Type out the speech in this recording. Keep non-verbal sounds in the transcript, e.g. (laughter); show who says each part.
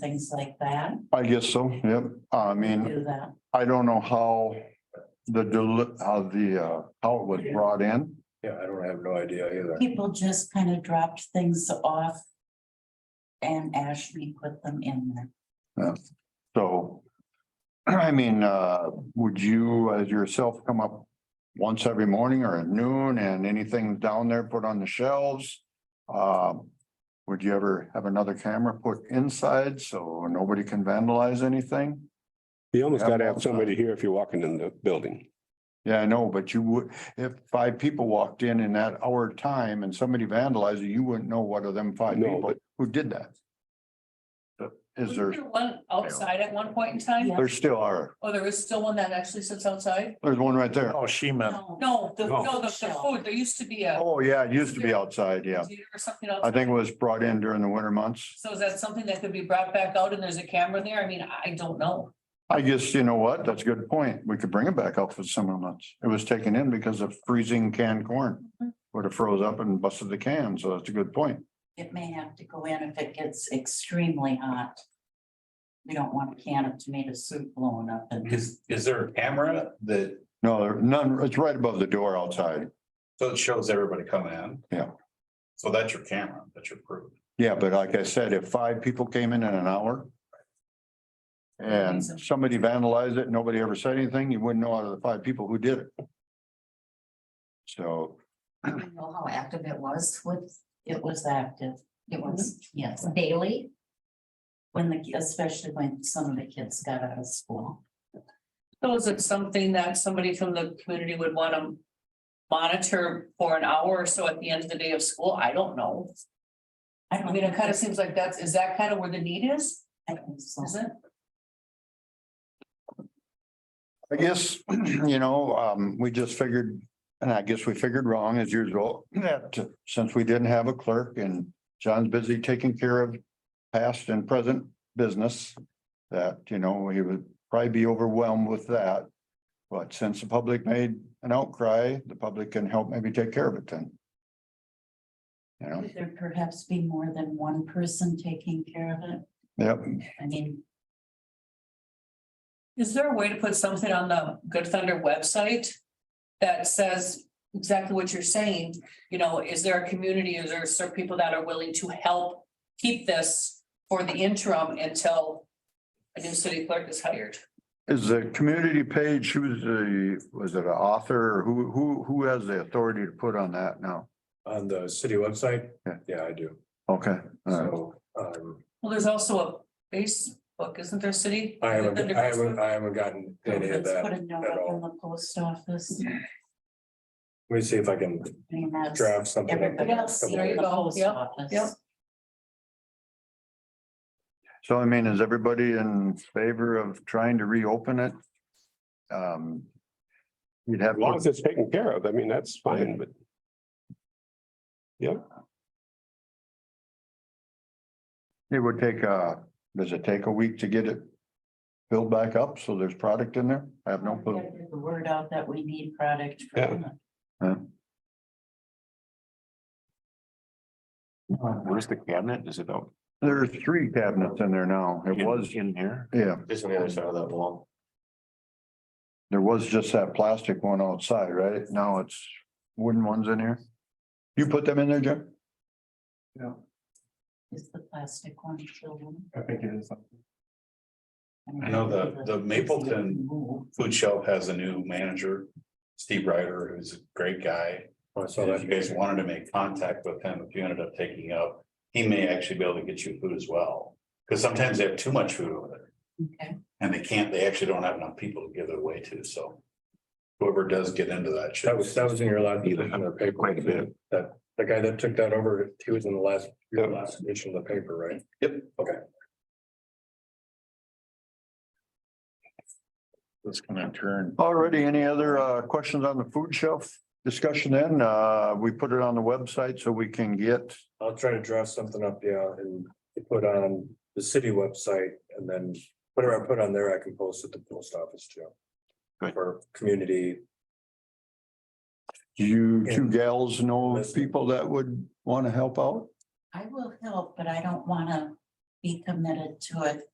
Speaker 1: things like that,
Speaker 2: I guess so, yep. I mean,
Speaker 1: do that.
Speaker 2: I don't know how the, deli- how the, uh, how it was brought in.
Speaker 3: Yeah, I don't have no idea either.
Speaker 1: People just kind of dropped things off. And Ashley put them in there.
Speaker 2: Uh, So, (clears throat) I mean, uh, would you, as yourself, come up once every morning or at noon and anything down there put on the shelves? Um, would you ever have another camera put inside so nobody can vandalize anything?
Speaker 4: You almost
Speaker 2: Have
Speaker 4: gotta
Speaker 2: them
Speaker 4: have somebody here if you're walking in the building.
Speaker 2: Yeah, I know, but you would, if five people walked in in that hour time and somebody vandalized, it, you wouldn't know what of them five
Speaker 4: No,
Speaker 2: people
Speaker 4: but-
Speaker 2: who did that. Is there,
Speaker 5: One outside at one point in time,
Speaker 1: Yeah.
Speaker 2: there still are,
Speaker 5: or there is still one that actually sits outside?
Speaker 2: there's one right there.
Speaker 3: Oh, she meant,
Speaker 5: No, the,
Speaker 4: No.
Speaker 5: no, the, the food, there used to be a.
Speaker 2: Oh, yeah, it used to be outside, yeah.
Speaker 5: theater Or something else.
Speaker 2: I think it was brought in during the winter months.
Speaker 5: So is that something that could be brought back out and there's a camera there? I mean, I don't know.
Speaker 2: I guess, you know what, that's a good point. We could bring it back out for the summer months. It was taken in because of freezing canned corn. Would have froze up and busted the can, so that's a good point.
Speaker 1: It may have to go in if it gets extremely hot. We don't want a can of tomato soup blowing up and
Speaker 3: is, is there a camera that,
Speaker 2: No, there- none, it's right above the door outside.
Speaker 3: so it shows everybody coming in?
Speaker 2: Yeah.
Speaker 3: So that's your camera, that's your proof.
Speaker 2: Yeah, but like I said, if five people came in in an hour. And somebody vandalized it, nobody ever said anything, you wouldn't know out of the five people who did it. So,
Speaker 6: I don't know how active it was with,
Speaker 1: it was active,
Speaker 6: it was
Speaker 1: yes.
Speaker 6: daily.
Speaker 1: When the, especially when some of the kids got out of school.
Speaker 5: So is it something that somebody from the community would want to monitor for an hour or so at the end of the day of school? I don't know.
Speaker 1: I
Speaker 5: I
Speaker 1: don't
Speaker 5: mean, it
Speaker 1: think
Speaker 5: kind of seems like that's, is that kind of where the need is?
Speaker 1: I think so.
Speaker 5: Is it?
Speaker 2: I guess, (clears throat) you know, um, we just figured, and I guess we figured wrong as usual, that since we didn't have a clerk and John's busy taking care of past and present business, that, you know, he would probably be overwhelmed with that. But since the public made an outcry, the public can help maybe take care of it then. You know,
Speaker 1: Could there perhaps be more than one person taking care of it?
Speaker 2: yep,
Speaker 1: I mean,
Speaker 5: Is there a way to put something on the Good Thunder website that says exactly what you're saying? You know, is there a community, is there certain people that are willing to help keep this for the interim until a new city clerk is hired?
Speaker 2: is the community page, who's the, was it an author, or who, who, who has the authority to put on that now?
Speaker 3: On the city website?
Speaker 2: Yeah.
Speaker 3: Yeah, I do.
Speaker 2: Okay, all right.
Speaker 3: So, um,
Speaker 5: Well, there's also a Facebook, isn't there, city?
Speaker 3: I haven't, I haven't, I haven't gotten any of
Speaker 1: let's put
Speaker 3: that.
Speaker 1: a note
Speaker 3: at
Speaker 1: up
Speaker 3: all.
Speaker 1: in the post office.
Speaker 7: Mm-hmm.
Speaker 1: I
Speaker 3: Let me see if I can
Speaker 1: mean, that's.
Speaker 3: draft something. up.
Speaker 1: Everybody else,
Speaker 5: There you
Speaker 1: the
Speaker 5: go.
Speaker 1: post
Speaker 5: Yep,
Speaker 1: office.
Speaker 5: yep.
Speaker 2: So I mean, is everybody in favor of trying to reopen it? Um. You'd have,
Speaker 4: As long as it's taken care of, I mean, that's fine, but
Speaker 2: it would take, uh, does it take a week to get it? Filled back up, so there's product in there? I have no clue.
Speaker 1: Get The word out that we need product. for
Speaker 4: Yeah.
Speaker 1: women.
Speaker 8: What is the cabinet? Is it out?
Speaker 2: There's three cabinets in there now. It
Speaker 8: in-
Speaker 2: was,
Speaker 8: In here?
Speaker 2: yeah,
Speaker 3: Just on the other side of that wall.
Speaker 2: there was just that plastic one outside, right? Now it's wooden ones in here. You put them in there, Jim?
Speaker 1: Is the plastic one children?
Speaker 3: I think it is.
Speaker 1: mean,
Speaker 7: I know the, the Mapleton food shelf has a new manager, Steve Ryder, who's a great guy.
Speaker 3: Oh, I saw
Speaker 7: So
Speaker 3: that.
Speaker 7: if you guys wanted to make contact with him, if you ended up taking up, he may actually be able to get you food as well. Because sometimes they have too much food over there
Speaker 1: Okay,
Speaker 7: and they can't, they actually don't have enough people to give it away to, so. Whoever does get into that. should-
Speaker 3: That was, that was in your last.
Speaker 4: Either.
Speaker 3: in the paper.
Speaker 4: Quite a bit.
Speaker 3: That, the guy that took that over, he was in the last, your
Speaker 4: Yeah.
Speaker 3: last edition of the paper, right?
Speaker 7: Yep.
Speaker 3: Okay.
Speaker 8: It's gonna turn.
Speaker 2: Already, any other uh questions on the food shelf discussion then? Uh, we put it on the website so we can get.
Speaker 3: I'll try to draft something up, yeah, and put on the city website and then whatever I put on there, I can post at the post office too.
Speaker 8: Good.
Speaker 3: For community,
Speaker 2: Do you two gals know
Speaker 3: Listen.
Speaker 2: people that would want to help out?
Speaker 1: I will help, but I don't wanna be committed to it